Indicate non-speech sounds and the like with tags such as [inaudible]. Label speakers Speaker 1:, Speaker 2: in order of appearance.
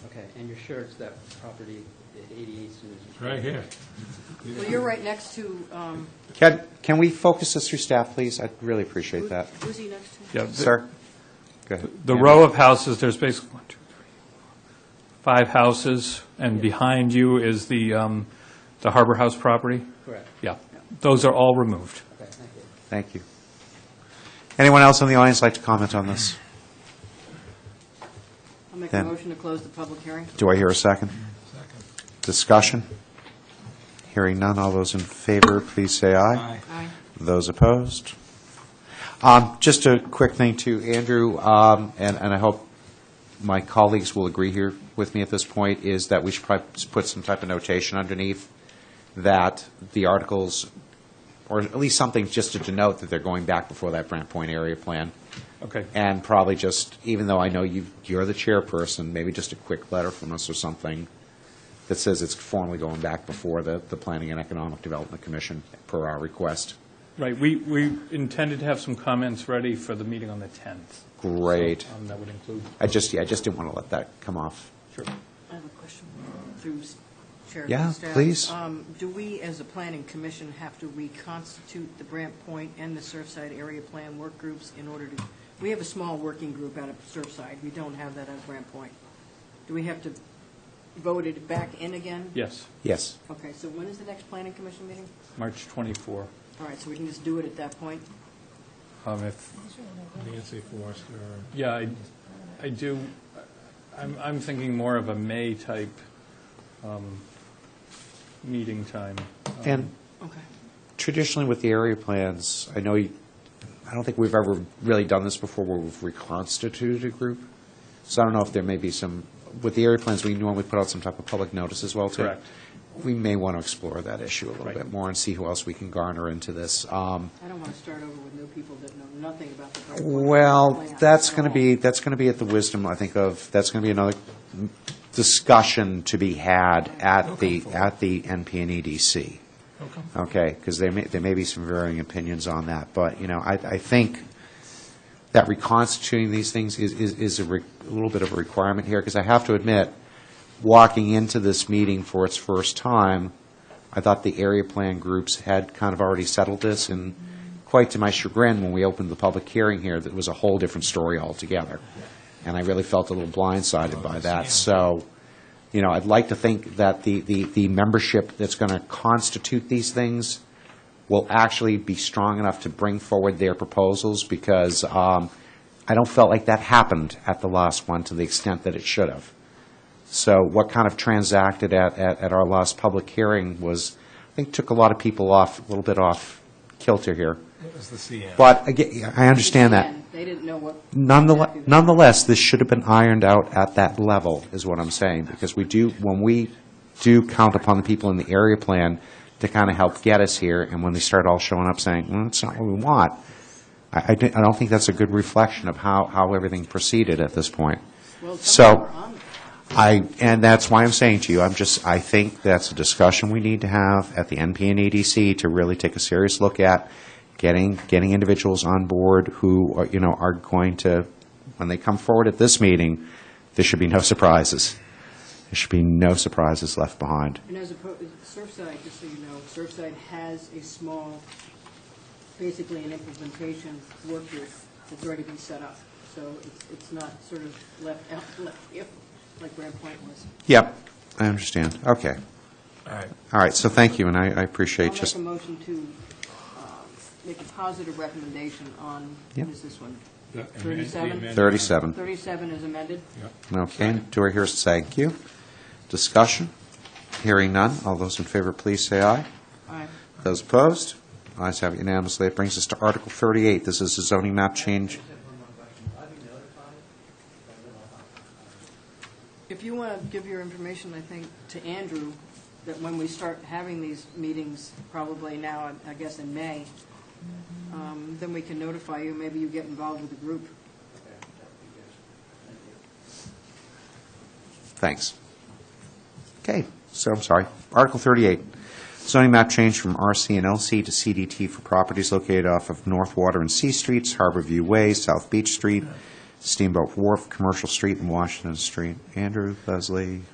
Speaker 1: And you're sure it's that property at 88 Susan?
Speaker 2: Right here.
Speaker 3: Well, you're right next to, um,
Speaker 4: Can, can we focus this through staff, please? I'd really appreciate that.
Speaker 3: who's he next to?
Speaker 5: Yeah, the-
Speaker 4: Sir? Go ahead.
Speaker 5: The row of houses, there's basically one, two, three, four, five houses, and behind you is the, um, the Harbor House property?
Speaker 1: Correct.
Speaker 5: Yeah, those are all removed.
Speaker 1: Okay, thank you.
Speaker 4: Thank you. Anyone else in the audience like to comment on this?
Speaker 3: I'll make
Speaker 4: Yeah.
Speaker 3: a motion to close the public hearing.
Speaker 4: Do I hear a second? Discussion? Hearing none, all those in favor, please say aye.
Speaker 3: Aye.
Speaker 4: Those opposed? Um, Just a quick thing to Andrew, um, and and I hope my colleagues will agree here with me at this point, is that we should probably put some type of notation underneath that the articles, or at least something just to denote that they're going back before that Brant Point area plan.
Speaker 5: Okay.
Speaker 4: And probably just, even though I know you, you're the chairperson, maybe just a quick letter from us or something that says it's formally going back before the, the Planning and Economic Development Commission per our request.
Speaker 5: Right, we, we intended to have some comments ready for the meeting on the 10th.
Speaker 4: Great.
Speaker 5: Um, That would include,
Speaker 4: I just, yeah, I just didn't want to let that come off.
Speaker 5: sure.
Speaker 3: I have a question through s- Chair.
Speaker 4: Yeah,
Speaker 3: and staff.
Speaker 4: please.
Speaker 3: Um, Do we, as a planning commission, have to reconstitute the Brant Point and the Surfside Area Plan work groups in order to, we have a small working group out of Surfside, we don't have that at Brant Point. Do we have to vote it back in again?
Speaker 5: Yes,
Speaker 4: Yes.
Speaker 3: Okay, so when is the next planning commission meeting?
Speaker 5: March 24,
Speaker 3: All right, so we can just do it at that point?
Speaker 5: um, if,
Speaker 2: Nancy Forrester.
Speaker 5: yeah, I, I do, I'm, I'm thinking more of a May-type um, meeting time. Um,
Speaker 4: And
Speaker 3: Okay.
Speaker 4: traditionally with the area plans, I know, you- I don't think we've ever really done this before where we've reconstituted a group. So I don't know if there may be some, with the area plans, we normally put out some type of public notice as well, too.
Speaker 5: Correct.
Speaker 4: We may want to explore that issue a little
Speaker 5: Right.
Speaker 4: bit more and see who else we can garner into this. Um,
Speaker 3: I don't want to start over with new people that know nothing about the Brant Point
Speaker 4: Well,
Speaker 3: plan
Speaker 4: that's
Speaker 3: at
Speaker 4: going to
Speaker 3: all.
Speaker 4: be, that's going to be at the wisdom, I think, of, that's going to be another discussion to be had at the, at the NP and EDC.
Speaker 2: Okay.
Speaker 4: Okay, because there may, there may be some varying opinions on that, but, you know, I, I think that reconstituting these things is, is, is a re- a little bit of a requirement here, because I have to admit, walking into this meeting for its first time, I thought the area plan groups had kind of already settled this, and quite to my chagrin, when we opened the public hearing here, that was a whole different story altogether. And I really felt a little blindsided by that, so, you know, I'd like to think that the, the, the membership that's going to constitute these things will actually be strong enough to bring forward their proposals, because um, I don't felt like that happened at the last one to the extent that it should have. So what kind of transacted at, at, at our last public hearing was, I think, took a lot of people off, a little bit off kilter here.
Speaker 2: It was the CN.
Speaker 4: But again, I understand that.
Speaker 3: Again, They didn't know what.
Speaker 4: Nonetheless, nonetheless, this should have been ironed out at that level, is what I'm saying, because we do, when we do count upon the people in the area plan to kind of help get us here, and when they start all showing up saying, well, that's not what we want, I, I don't I don't think that's a good reflection of how, how everything proceeded at this point.
Speaker 3: Well,
Speaker 4: So-
Speaker 3: some of them were on it.
Speaker 4: I, and that's why I'm saying to you, I'm just, I think that's a discussion we need to have at the NP and EDC to really take a serious look at getting, getting individuals on board who, are, you know, are going to, when they come forward at this meeting, there should be no surprises. There should be no surprises left behind.
Speaker 3: And as opposed, Surfside, just so you know, Surfside has a small, basically an implementation work group that's already been set up. So it's, it's not sort of left out, [laughs] left if, like Grand Point was.
Speaker 4: Yep, I understand. Okay.
Speaker 2: All right.
Speaker 4: All right, so thank you, and I, I appreciate
Speaker 3: I'll make
Speaker 4: just,
Speaker 3: a motion to uh, make a positive recommendation on,
Speaker 4: Yep.
Speaker 3: what is this one?
Speaker 2: The amend- the
Speaker 3: 37?
Speaker 2: amendment.
Speaker 4: 37.
Speaker 3: 37 is amended.
Speaker 2: Yep.
Speaker 4: Okay, do I hear, a thank you. Discussion? Hearing none. All those in favor, please say aye.
Speaker 3: Aye.
Speaker 4: Those opposed? Ayes have it unanimously. It brings us to Article 38. This is a zoning map change.
Speaker 3: If you want to give your information, I think, to Andrew, that when we start having these meetings, probably now, I guess in May, um, then we can notify you, maybe you get involved with the group.
Speaker 4: Thanks. Okay, so I'm sorry. Article 38, zoning map change from RC and LC to CDT for properties located off of North Water and C Streets, Harbor View Way, South Beach Street, Steamboat Wharf, Commercial Street, and Washington Street. Andrew, Leslie?